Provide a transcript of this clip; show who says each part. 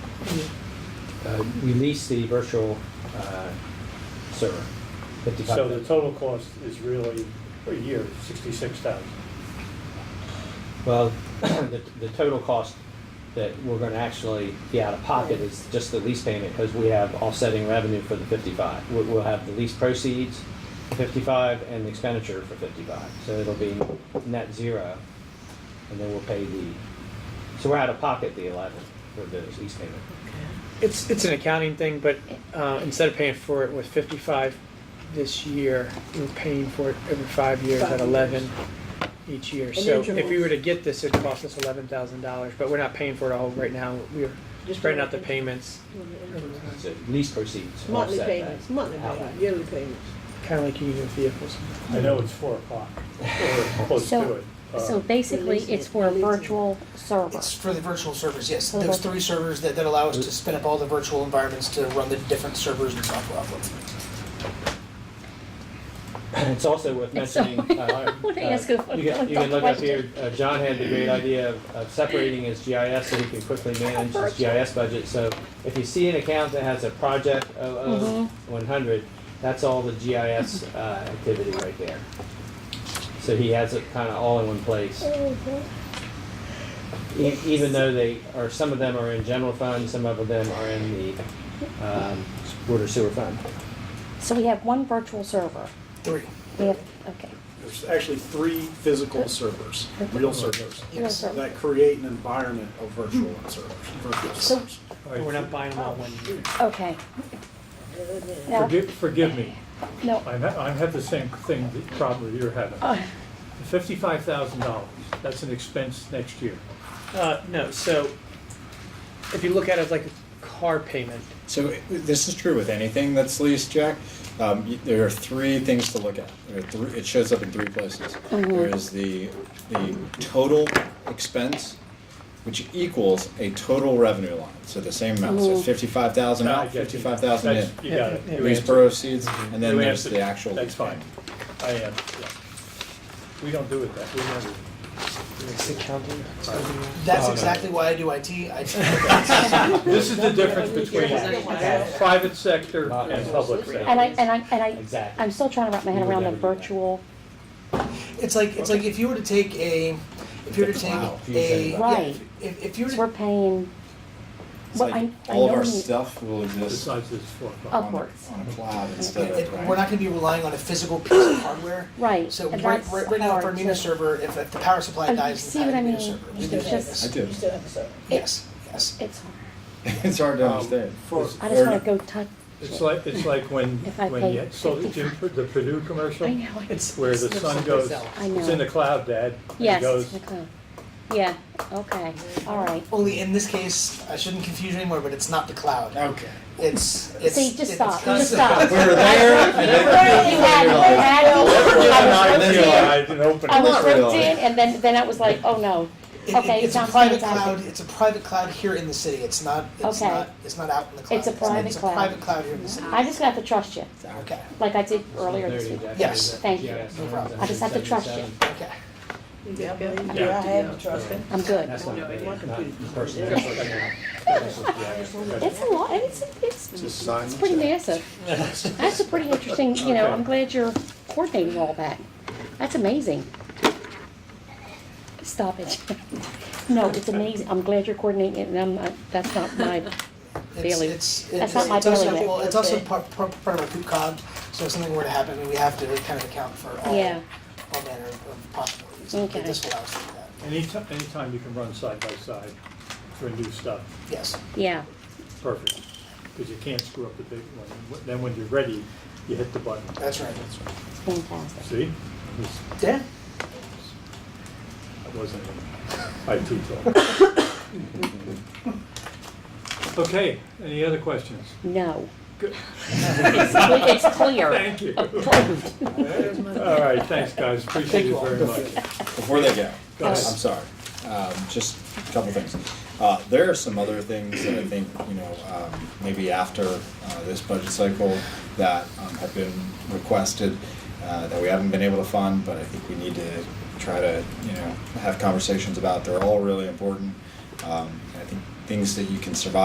Speaker 1: uh, release the virtual uh, server. Fifty-five.
Speaker 2: So the total cost is really, per year, sixty-six thousand.
Speaker 1: Well, the, the total cost that we're gonna actually be out of pocket is just the lease payment, because we have offsetting revenue for the fifty-five. We'll, we'll have the lease proceeds, for fifty-five, and the expenditure for fifty-five, so it'll be net zero. And then we'll pay the, so we're out of pocket the eleven for the lease payment.
Speaker 3: It's, it's an accounting thing, but uh, instead of paying for it with 55 this year, we're paying for it every five years
Speaker 4: Five
Speaker 3: at 11 each year. So if we
Speaker 4: intervals.
Speaker 3: were to get this, it'd cost us $11,000, but we're not paying for it all right now. We're
Speaker 4: Just
Speaker 3: spreading out the
Speaker 4: doing
Speaker 3: payments,
Speaker 1: So lease proceeds will
Speaker 4: Monthly
Speaker 1: offset that.
Speaker 4: payments, monthly payments, yearly payments.
Speaker 3: kind of like you do with vehicles.
Speaker 2: I know it's four o'clock, or close to
Speaker 5: So-
Speaker 2: it. Uh,
Speaker 5: So basically,
Speaker 4: Releasing
Speaker 5: it's
Speaker 4: it,
Speaker 5: for a
Speaker 4: releasing it.
Speaker 5: virtual server.
Speaker 6: It's for the virtual servers, yes.
Speaker 5: Okay.
Speaker 6: Those three servers that, that allow us to spin up all the virtual environments to run the different servers and software off of.
Speaker 1: It's also worth
Speaker 5: It's so-
Speaker 1: mentioning. uh,
Speaker 5: I wanna
Speaker 1: uh,
Speaker 5: ask a
Speaker 1: You can, you can look up here,
Speaker 5: question.
Speaker 1: uh, John had the great idea of, of separating his GIS so he can quickly manage his GIS budget. So if you see an account that has a project
Speaker 5: Mhm.
Speaker 1: 00-100, that's all the GIS uh, activity right there. So he has it kind of all in one place. E- Even though they, or some of them are in general fund, some of them are in the um, water sewer fund.
Speaker 5: So we have one virtual server.
Speaker 6: Three,
Speaker 5: We have, okay.
Speaker 7: There's actually three physical servers, real servers,
Speaker 5: Real
Speaker 6: yes.
Speaker 5: server.
Speaker 7: that create an environment of virtual servers, virtual
Speaker 5: So-
Speaker 7: servers.
Speaker 2: all
Speaker 3: But We're
Speaker 2: right,
Speaker 3: not buying them all
Speaker 4: Oh,
Speaker 3: one year.
Speaker 5: Okay. Now-
Speaker 2: Forgive, forgive me,
Speaker 5: No,
Speaker 2: I ha- I have the same thing, that problem you're having.
Speaker 5: Uh.
Speaker 2: Fifty-five thousand dollars, that's an expense next year.
Speaker 3: Uh, no, so if you look at it as like a car payment,
Speaker 8: So i- this is true with anything that's leased, Jack. Um, y- there are three things to look at. There are three, it shows up in three places.
Speaker 5: Mm-hmm.
Speaker 8: There is the the total expense, which equals a total revenue line. So the same amount.
Speaker 5: Mm-hmm.
Speaker 8: So it's fifty five thousand
Speaker 2: I
Speaker 8: out,
Speaker 2: get you.
Speaker 8: fifty five thousand in.
Speaker 2: That's- You got it.
Speaker 3: Yeah,
Speaker 2: You
Speaker 8: Lease
Speaker 2: answered- Mm-hmm.
Speaker 8: proceeds, and then
Speaker 2: you
Speaker 8: there's
Speaker 2: answered.
Speaker 8: the actual.
Speaker 2: That's fine, I am, yeah. We don't do it that, we never.
Speaker 3: it's accounting.
Speaker 6: That's exactly why I do IT. I
Speaker 2: This is the difference between
Speaker 4: Yeah.
Speaker 2: private sector and public sector.
Speaker 5: and I, and I, and I,
Speaker 1: Exactly.
Speaker 5: I'm still trying to wrap my head
Speaker 1: We would
Speaker 5: around the
Speaker 1: never do that.
Speaker 5: virtual,
Speaker 6: It's like, it's like if you were to take a, if you were to take
Speaker 8: Wow.
Speaker 6: a, yeah,
Speaker 5: Right.
Speaker 6: if, if you were
Speaker 5: so
Speaker 6: to
Speaker 5: we're paying,
Speaker 8: It's
Speaker 5: well,
Speaker 8: like
Speaker 5: I, I
Speaker 8: all of
Speaker 5: know
Speaker 8: our
Speaker 5: we need,
Speaker 8: stuff will exist on
Speaker 2: Besides this four
Speaker 8: the-
Speaker 2: o'clock.
Speaker 5: Oh. Upwards.
Speaker 8: on a cloud instead
Speaker 6: It-
Speaker 8: of.
Speaker 6: it- We're not gonna be relying on a physical piece of hardware.
Speaker 5: Right,
Speaker 6: So
Speaker 5: and
Speaker 6: right, right
Speaker 5: that's
Speaker 6: right now, for a
Speaker 5: hard
Speaker 6: Munis
Speaker 5: to-
Speaker 6: server, if if the power
Speaker 5: Oh,
Speaker 6: supply
Speaker 5: you
Speaker 6: dies,
Speaker 5: see
Speaker 6: I
Speaker 5: what I
Speaker 6: have a Munis
Speaker 5: mean?
Speaker 6: server.
Speaker 5: It's
Speaker 6: We do
Speaker 5: just-
Speaker 6: this.
Speaker 8: I do.
Speaker 4: You still have a server.
Speaker 6: Yes, yes.
Speaker 5: it's, hard.
Speaker 8: It's hard to understand.
Speaker 2: Um, For-
Speaker 5: I just
Speaker 8: Or-
Speaker 5: wanna go touch,
Speaker 2: It's like, it's like when,
Speaker 5: If I
Speaker 2: when
Speaker 5: pay
Speaker 2: you, so the Jim, the Purdue commercial?
Speaker 5: I know, I-
Speaker 3: It's,
Speaker 2: Where the
Speaker 3: it's
Speaker 2: sun
Speaker 3: someplace
Speaker 2: goes,
Speaker 3: else.
Speaker 5: I know.
Speaker 2: it's in the cloud, Dad. and it
Speaker 5: yes,
Speaker 2: goes-
Speaker 5: it's in the cloud. Yeah, okay, all right.
Speaker 6: Only in this case, I shouldn't confuse you anymore, but it's not the cloud.
Speaker 8: Okay.
Speaker 6: It's, it's.
Speaker 5: See, just
Speaker 6: it's
Speaker 5: stop, you just
Speaker 6: constant-
Speaker 5: stop.
Speaker 8: We were there. and then we
Speaker 5: Literally had-
Speaker 8: realized-
Speaker 5: had- I was
Speaker 8: Never
Speaker 5: roped in.
Speaker 8: realized.
Speaker 2: I didn't open
Speaker 5: I
Speaker 2: it.
Speaker 5: was
Speaker 8: Not
Speaker 5: roped in,
Speaker 8: really.
Speaker 5: and then, then I was like, oh no.
Speaker 6: It- it-
Speaker 5: Okay,
Speaker 6: It's a
Speaker 5: sounds
Speaker 6: private
Speaker 5: fantastic.
Speaker 6: cloud, it's a private cloud here in the city. It's not, it's
Speaker 5: Okay.
Speaker 6: not, it's not out in the cloud.
Speaker 5: It's a private
Speaker 6: It's
Speaker 5: cloud. Ah.
Speaker 6: a private cloud here in the city.
Speaker 5: I just have to trust you,
Speaker 6: Okay,
Speaker 5: like I did
Speaker 1: So
Speaker 5: earlier
Speaker 1: there
Speaker 5: this
Speaker 1: you
Speaker 5: week.
Speaker 1: go.
Speaker 6: Yes.
Speaker 5: Thank you.
Speaker 1: GIS
Speaker 6: No problem.
Speaker 5: I just have to trust you.
Speaker 6: okay.
Speaker 4: Yeah, I
Speaker 2: Yeah.
Speaker 4: have to trust it.
Speaker 5: I'm good.
Speaker 1: That's not,
Speaker 4: No,
Speaker 1: bad,
Speaker 4: it wasn't
Speaker 1: not
Speaker 4: pretty.
Speaker 1: personal.
Speaker 4: Yeah.
Speaker 1: That's just GIS.
Speaker 5: It's a lot, and it's, it's,
Speaker 7: Just sign
Speaker 5: it's pretty
Speaker 7: it.
Speaker 5: massive. That's a pretty interesting, you know,
Speaker 2: Okay.
Speaker 5: I'm glad you're coordinating all that. That's amazing. Stop it. No, it's amazing. I'm glad you're coordinating it, and I'm, not- that's not my,
Speaker 6: It's-
Speaker 5: Bailey.
Speaker 6: It's,
Speaker 5: That's
Speaker 6: it's,
Speaker 5: not my
Speaker 6: it's also,
Speaker 5: bailiwick.
Speaker 6: well, it's also part, part, part of our COOCOG, so if something were to happen, we have to kind of account for all,
Speaker 5: Yeah.
Speaker 6: all manner of possibilities.
Speaker 5: Okay.
Speaker 6: This allows for that,
Speaker 2: Anytime, anytime you can run side by side for new stuff,
Speaker 6: yes.
Speaker 5: yeah,
Speaker 2: perfect, because you can't screw up the big one. Then when you're ready, you hit the button.
Speaker 6: That's right.
Speaker 5: it's fantastic.
Speaker 2: See? This-
Speaker 6: Yeah.
Speaker 2: That wasn't an IT talk. Okay, any other questions?
Speaker 5: No.
Speaker 2: Good.
Speaker 5: It's cle- it's clear.
Speaker 2: Thank you.
Speaker 5: Approved.
Speaker 2: All right, thanks, guys, appreciate it very much.
Speaker 8: Before they go,
Speaker 2: Go
Speaker 8: I'm
Speaker 2: ahead.
Speaker 8: sorry, um, just a couple things. Uh, there are some other things that I think, you know, um, maybe after, uh, this budget cycle that, um, have been requested, uh, that we haven't been able to fund, but I think we need to try to, you know, have conversations about. They're all really important. Um, I think things that you can survive